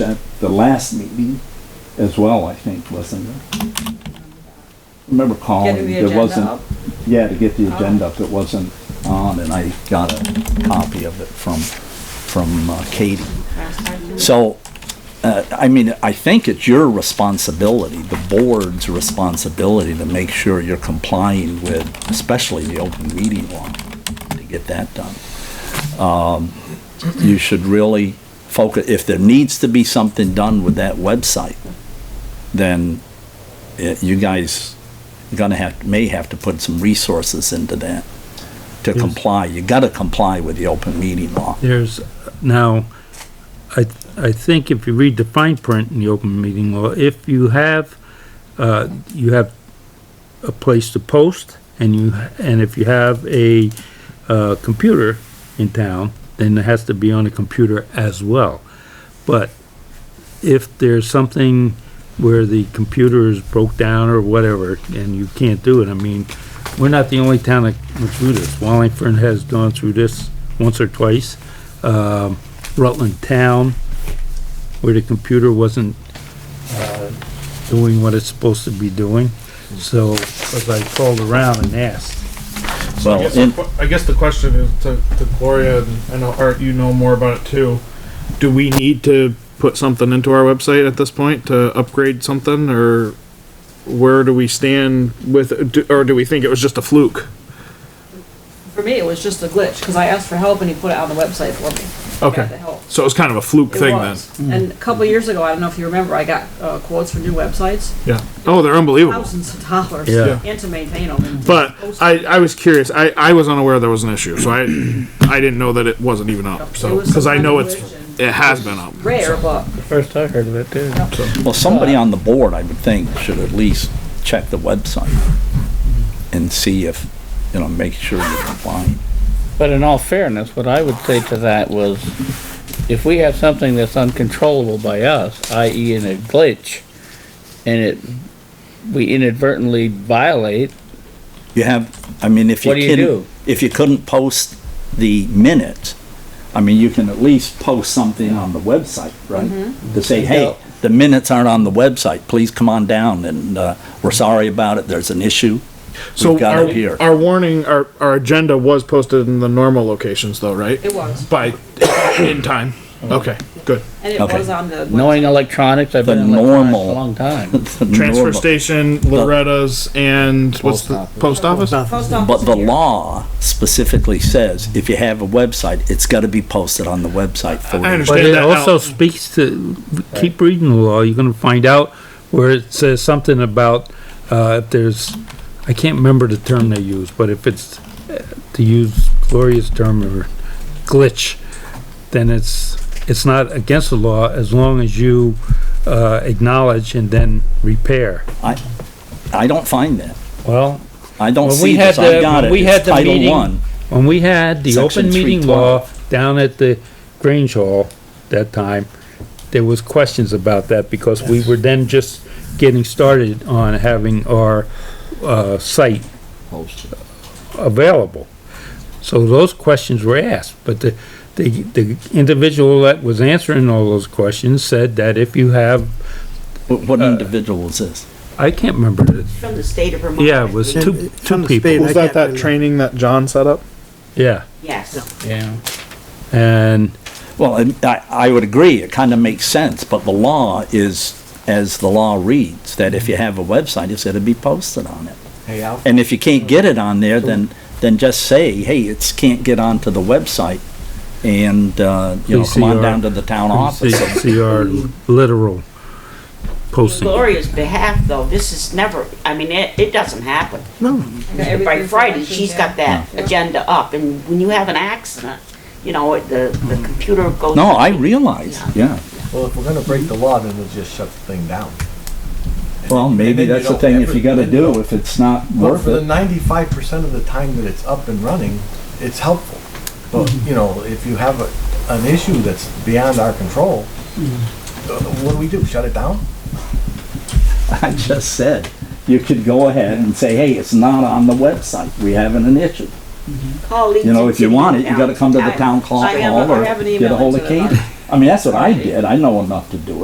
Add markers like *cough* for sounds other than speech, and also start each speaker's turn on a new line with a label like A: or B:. A: at the last meeting as well, I think, wasn't it? Remember
B: Getting
A: calling,
B: the
A: there
B: agenda up?
A: wasn't, yeah, to get the
B: Oh.
A: agenda up, it wasn't on, and I got a copy of it from, from uh, Katie.
B: Last time?
A: So, uh, I mean, I think it's your responsibility, the board's responsibility to make sure you're complying with, especially the open meeting law, to get that done. Um, You should really focus, if there needs to be something done with that website, then eh, you guys gonna have, may have to put some resources into that to
C: Yes.
A: comply. You gotta comply with the open meeting law.
C: There's, now, I, I think if you read the fine print in the open meeting law, if you have, uh, you have a place to post, and you, and if you have a, uh, computer in town, then it has to be on a computer as well. But if there's something where the computer is broke down or whatever, and you can't do it, I mean, we're not the only town that went through this. Wallingford has gone through this once or twice. Um, Rutland Town, where the computer wasn't, uh, doing what it's supposed to be doing. So, as I called around and asked,
D: I
A: Well,
D: guess,
A: in-
D: the, que- I guess the question is to, to Gloria, and I know Art, you know more about it too. Do we need to put something into our website at this point to upgrade something, or where do we stand with, do- or do we think it was just a fluke?
B: For me, it was just a glitch, because I asked for help and he put it on the website for me. I got the
D: Okay,
B: help.
D: so it was kind of a fluke
B: It
D: thing then.
B: was. And a couple years ago, I don't know if you remember, I got uh, quotes for new websites,
D: Yeah. Oh, they're unbelievable.
B: thousands of dollars,
C: Yeah.
B: and to maintain them. and to
D: But
B: post
D: I, I was curious. I, I was unaware there was an issue, so I I didn't know that it wasn't even up.
B: It
D: So
B: was some
D: because I
B: kind
D: know
B: of
D: it's
B: glitch
D: it has been up.
B: it. Rare, but
E: First I heard of it too.
A: Well, somebody on the board, I would think, should at least check the website and see if, you know, make sure you're complying.
E: But in all fairness, what I would say to that was, if we have something that's uncontrollable by us, i.e. in a glitch, and it, we inadvertently violate,
A: You have, I mean, if you
E: What do you
A: couldn't,
E: do?
A: if you couldn't post the minute, I mean, you can at least post something on the website, right? To say, hey,
E: Yeah.
A: the minutes aren't on the website, please come on down and, uh, we're sorry about it, there's an issue. *laughs*
D: So
A: We've got
D: our,
A: it here.
D: our warning, our, our agenda was posted in the normal locations though, right?
B: it was.
D: By, in time. Okay, good.
B: And it
A: Okay.
B: was on the.
E: knowing electronics, I've been
A: The
E: in electronics a
A: normal-
E: long
A: *laughs*
E: time.
D: Transfer station, Loretta's and what's the, post office?
B: Post office
A: But the
B: here.
A: law specifically says if you have a website, it's gotta be posted on the website for.
D: I understand.
C: But
D: Stand
C: it
D: that
C: also
D: out.
C: speaks to, keep reading the law, you're gonna find out where it says something about, uh, if there's, I can't remember the term they use, but if it's, uh, to use Gloria's term or glitch, then it's, it's not against the law as long as you, uh, acknowledge and then repair.
A: I, I don't find that.
C: Well,
A: I don't
E: When
A: see
E: we had
A: this, I
E: the-
A: got
E: when
A: it,
E: we had
A: it's
E: the
A: Title
E: meeting-
A: One.
C: when we had the
A: Section
C: open meeting law down at the Grange Hall that time, there was questions about that because we were then just getting started on having our, uh, site available. So those questions were asked, but the, the, the individual that was answering all those questions said that if you have,
A: What
E: Uh,
A: what individual is this?
C: I can't remember it,
F: From the state of Vermont.
C: yeah,
F: I
C: it was
F: believe.
C: two,
F: It's
C: two
F: from the
C: people,
F: state.
D: Was that that training that John set up?
C: yeah,
F: Yes.
E: Yeah.
C: and
A: Well, and I, I would agree, it kind of makes sense, but the law is, as the law reads, that if you have a website, it's gonna be posted on it. And if you can't get it on there, then, then just say, hey, it's, can't get onto the website, and, uh, you know, come on
C: PCR.
A: down to the town
C: see,
A: office.
C: see our literal posting.
F: Gloria's behalf, though, this is never, I mean, it, it doesn't happen.
B: I got
F: By
B: everything
F: Friday,
B: from-
F: she's got that
B: Yeah.
F: agenda up, and when you have an accident, you know, it- the, the computer
A: Mm-hmm.
F: goes.
A: No, I realize, yeah.
G: Well, if we're gonna break the law, then we'll just shut the thing down.
A: Well, maybe
G: then you
A: that's the
G: don't
A: thing,
G: ever-
A: if you gotta
G: then you
A: do, if it's not
G: But
A: worth
G: for the
A: it,
G: ninety-five percent of the time that it's up and running, it's helpful. But,
A: Mm-hmm.
G: you know, if you have a, an issue that's beyond our control,
A: Mm-hmm.
G: uh, what do we do? Shut it down?
A: I just said, you could go ahead and say, hey, it's not on the website, we having an issue.
F: Call Leeds
A: You know,
F: and
A: if you
F: City
A: want it, you
F: Town.
A: gotta come to the
F: I-
A: town
B: I
A: clock
B: have a-
A: hall
B: I
A: or
B: have an
A: get a
B: email
A: hold of
B: into
A: Katie.
B: them.
A: I mean, that's what I did. I know enough to do it.